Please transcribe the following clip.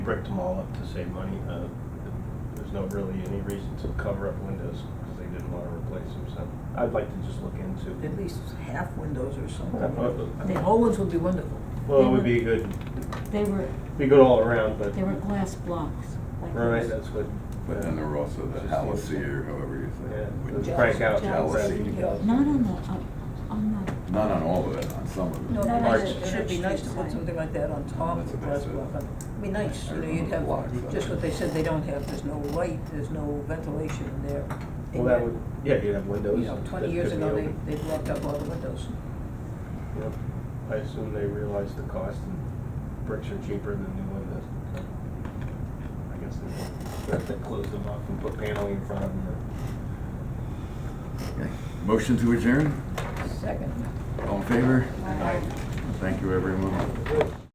bricked them all up to save money. Uh, There's no really any reason to cover up windows because they didn't want to replace them, so I'd like to just look At into. least half windows or something. Probably. I mean, whole ones would be wonderful. Well, it would be good, They were, be good all around, but, they were glass blocks. like right, this. that's what. But then there were also the Halcy or however you Yeah, say let's it. crank out. Jealousy. Not on the, uh, on the, Not on all of it, on some of it. No, No, but Arch. it should be nice to put something like that on top That's of the what they said. crosswalk. It'd be nice, you know, you'd have, just what they said they don't have, there's no light, there's no ventilation in there. Well, that would, yeah, you'd have windows. You know, that twenty years could be ago, they, open. they blocked up all the windows. Yep. I assume they realized the cost and bricks are cheaper than new windows. so I guess they have to close them off and put paneling in front of them. or- Okay. Motion to adjourn? Second. All in favor? Thank you, everyone.